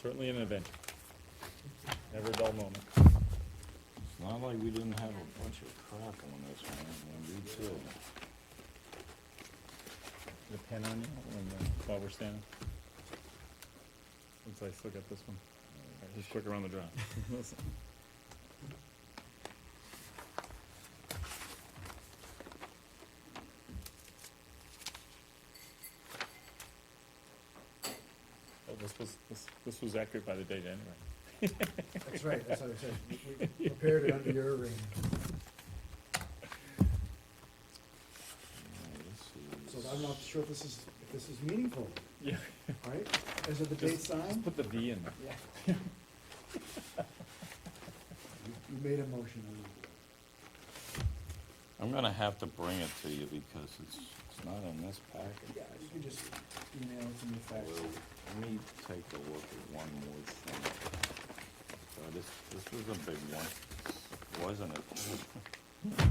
certainly an adventure. Never a dull moment. It's not like we didn't have a bunch of crap on this one, and we too. The pen on you when, uh, while we're standing? Since I still got this one. All right, He's quick around the draw. Oh, this was, this, this was accurate by the date anyway. That's right, that's what I said. We- We prepared it under your ring. So I'm not sure if this is, if this is meaningful, Yeah, all right? Is it the date just, just signed? put the V in there. Yeah. You you made a motion. I don't know. I'm gonna have to bring it to you because it's, it's not in this packet. Yeah, you can just email it to me Well, fax. it. let me take a look at one more thing. So this, this was a big one, wasn't it? Says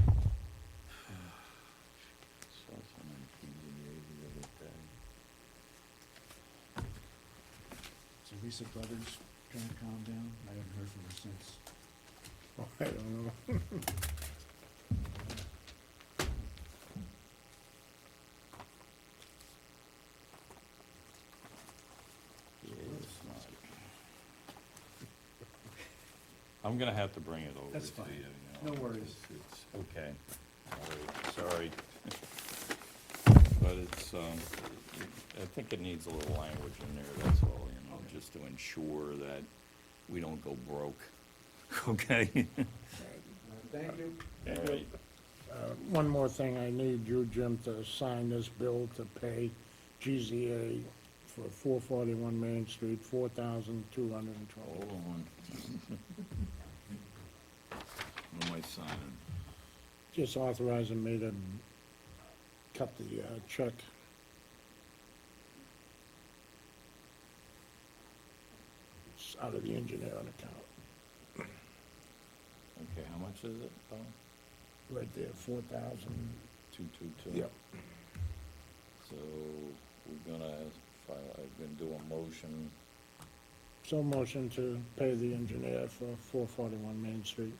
on the PDA the other day. So Lisa Brothers trying to calm down. I haven't heard from her since. I don't know. Yeah, it's not. I'm gonna have to bring it over to That's you. fine. you know, No worries. it's- It's, okay, All right, sorry. But it's, um, I think it needs a little language in there, that's all, you know, Okay. just to ensure that we don't go broke, okay? Uh, Thank you. Anyway, Uh, One more thing, I need you, Jim, to sign this bill to pay GZA for 441 Main Street, $4,212. Hold on. What am I signing? Just authorizing me to cut the uh, check. It's out of the engineering account, Okay, how much is it, Tom? right there, 4,000. Two-two-two? So, we're gonna, file. I'm gonna do a motion So motion to pay the engineer for 441 Main Street.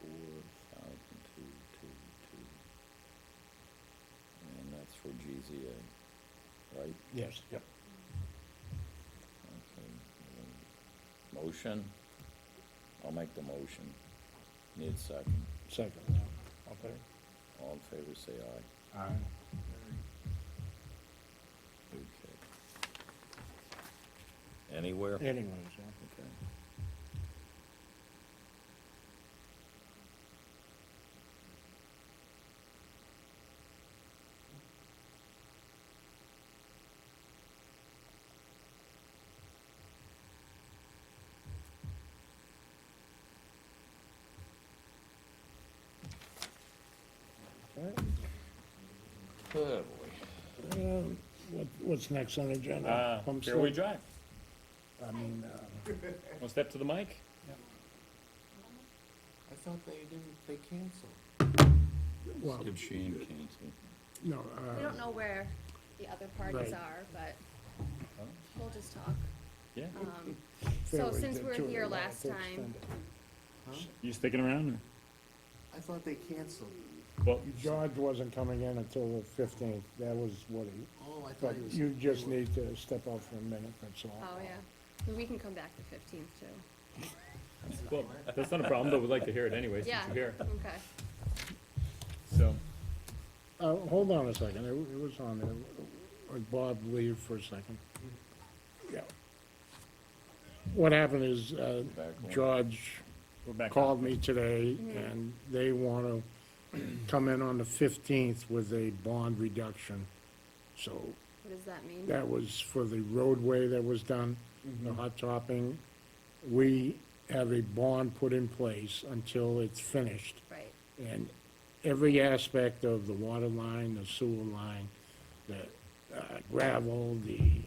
four thousand two two two. And that's for GZA, right? Yes. Yep. Okay. um, Motion? I'll make the motion. Need a second. Second, yeah. okay. All in favor, say aye. Okay. Anywhere? Anyways, yeah. Okay. Good boy. Um, What, what's next on the Uh, agenda? Pump here we station? drive. I mean, uh, One step to the mic. I thought they didn't, they canceled. well, Good Shane Canty. no, We uh, don't know where the other Right. parties are, but Huh? we'll just talk. Yeah. Um, So Fairway since did we're too, they here wanted last to extend time, Huh? You sticking around? or- I thought they canceled. Well, it. George wasn't coming in until the fifteenth, that was what he, Oh, I but thought it was. you just need to step out for a minute, that's all. oh, yeah, we can come back the fifteenth too. well, that's not a problem, but we'd like to hear it anyway, since Yeah, you're here. okay. So, Uh, hold on a second, it, wa- it was on there, Like, Bob leave for a second. Yeah. What happened is, uh, Back on. George we're back. on. called me today, and they want to come in on the 15th with a bond reduction. So What does that mean? that was for the roadway that was done, the Mm-hmm. hot topping. We have a bond put in place until it's finished. Right, And every aspect of the water line, the sewer line, the uh, gravel, the